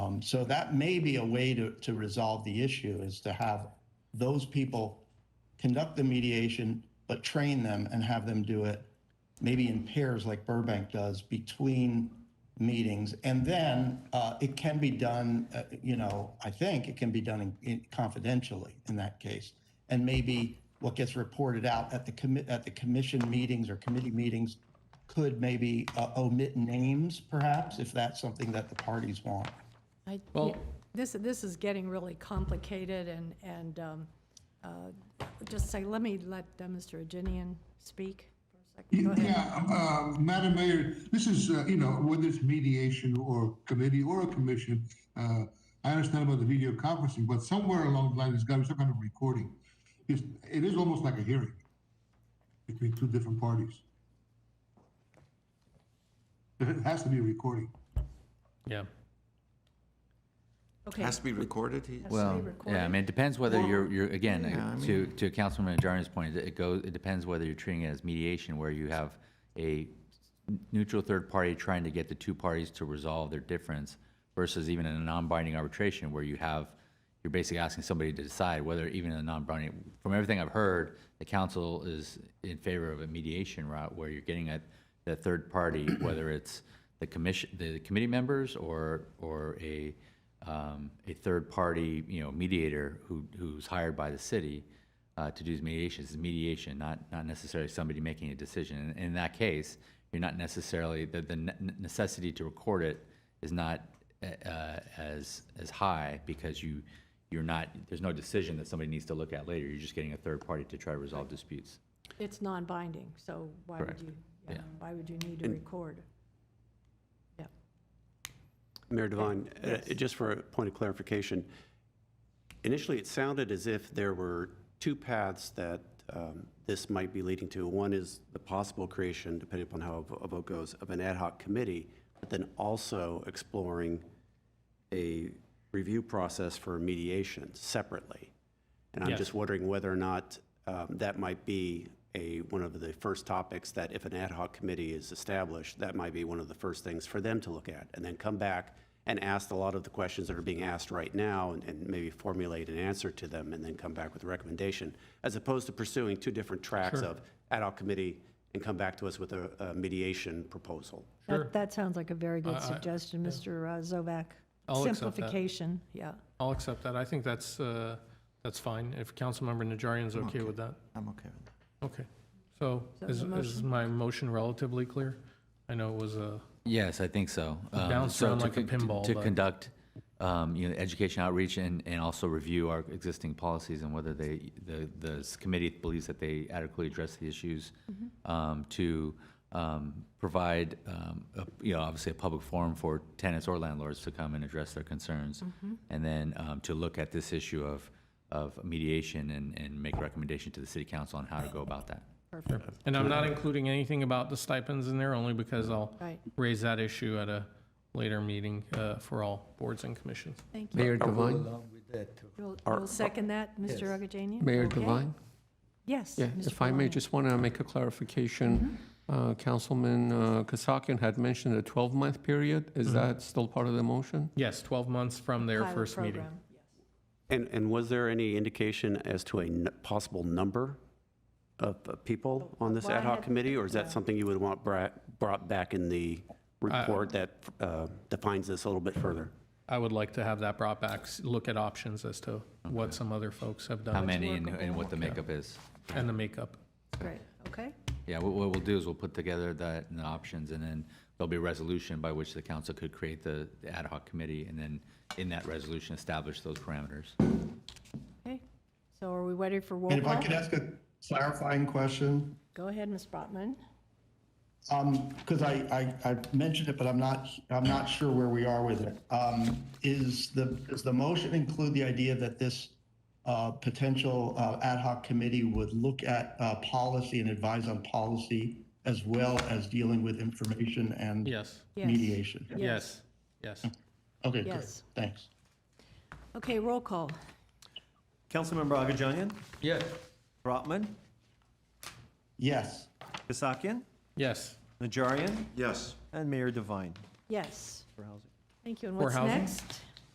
Um, So that may be a way to, to resolve the issue is to have those people conduct the mediation, but train them and have them do it maybe in pairs like Burbank does between meetings. And then uh, it can be done, uh, you know, I think it can be done in- in- confidentially in that case. And maybe what gets reported out at the commit, at the commission meetings or committee meetings could maybe uh, omit names perhaps, if that's something that the parties want. I, Well- this, this is getting really complicated and, and um, uh, just say, let me let uh, Mr. Ajinian speak for a second. Go ahead. Yeah, um, uh, Madam Mayor, this is, uh, you know, whether it's mediation or committee or a commission, uh, I understand about the video conferencing, but somewhere along the line, there's got to be some kind of recording. It's, it is almost like a hearing between two different parties. There has to be a recording. Yeah. Okay, Has to be recorded? He- Has to be Well, yeah, I recorded. mean, it depends whether you're, you're, again, yeah, I uh, to, to Councilman Najarian's point, it goes, it depends whether you're treating it as mediation, where you have a neutral third party trying to get the two parties to resolve their difference versus even in a non-binding arbitration where you have, you're basically asking somebody to decide whether even in a non-binding, from everything I've heard, the council is in favor of a mediation route where you're getting at the third party, whether it's the commission, the committee members or, or a, um, a third party, you know, mediator who, who's hired by the city uh, to do these mediations. It's mediation, not, not necessarily somebody making a decision. And in that case, you're not necessarily, the, the ne- necessity to record it is not uh, uh, as, as high because you, you're not, there's no decision that somebody needs to look at later. You're just getting a third party to try to resolve disputes. it's non-binding, so why would Correct. you, yeah, Yeah. why would you need to record? Yeah, Mayor Devine, uh, just for a point of clarification, initially, it sounded as if there were two paths that um, this might be leading to. One is the possible creation, depending upon how a vote goes, of an ad hoc committee, but then also exploring a review process for mediation separately. And I'm Yes. just wondering whether or not um, that might be a, one of the first topics that if an ad hoc committee is established, that might be one of the first things for them to look at, and then come back and ask a lot of the questions that are being asked right now, and- and maybe formulate an answer to them, and then come back with a recommendation, as opposed to pursuing two different tracks of ad hoc committee and come back to us with a a mediation proposal. Sure. that, that sounds like a very good suggestion, Mr. uh, Zovac. I'll accept that. Simplification, yeah. I'll accept that. I think that's, uh, that's fine. If Councilmember Najarian's okay with that. I'm okay with that. Okay. So that is, the is my motion relatively clear? I know it was a, Yes, I think so. Um, bounced so around to like a con- to- pinball, To but- conduct, um, you know, education outreach and, and also review our existing policies and whether they, the, the s- committee believes that they adequately address the issues. Um, to, um, provide, um, a- you know, obviously a public forum for tenants or landlords to come and address their concerns. And then, um, to look at this issue of, of mediation and, and make recommendation to the city council on how to go about that. and I'm not including anything about the stipends in there only because I'll Right. raise that issue at a later meeting, uh, for all boards and commissions. Thank you. Mayor Devine, You'll, you'll second that, Mr. Agajanian? Mayor Okay. Devine? Yes. Yeah, Mr. if I may, Valani. just want to make a clarification. Mm-hmm. Uh, Councilman uh, Kasakian had mentioned a 12-month period. Is that still part of the motion? Mm-hmm. Yes, 12 months from their Pilot first meeting. program, yes. And, and was there any indication as to a n- possible number of uh, people on this Well, I ad hoc had- committee? Or is that something you would want bra- brought back in the report that uh, defines this a little bit further? I would like to have that brought back, s- look at options as to what some other folks have How done many and, and what the makeup is. and the makeup. Great, okay. Yeah, what, what we'll do is we'll put together that and the options, and then there'll be a resolution by which the council could create the, the ad hoc committee, and then in that resolution, establish those parameters. Okay, so are we ready for roll And if I call? could ask a clarifying question, Go ahead, Ms. Brotman. Um, because I, I, I mentioned it, but I'm not, I'm not sure where we are with it. Um, is the, does the motion include the idea that this, uh, potential, uh, ad hoc committee would look at, uh, policy and advise on policy as well as dealing with information and Yes, Yes. mediation? yes, yes. Okay, good. Yes. Thanks. Okay, roll call. Councilmember Agajanian, Yes. Brotman, Yes. Kasakian, Yes. Najarian, Yes. and Mayor Devine Yes, for housing. thank you. And For what's housing? next?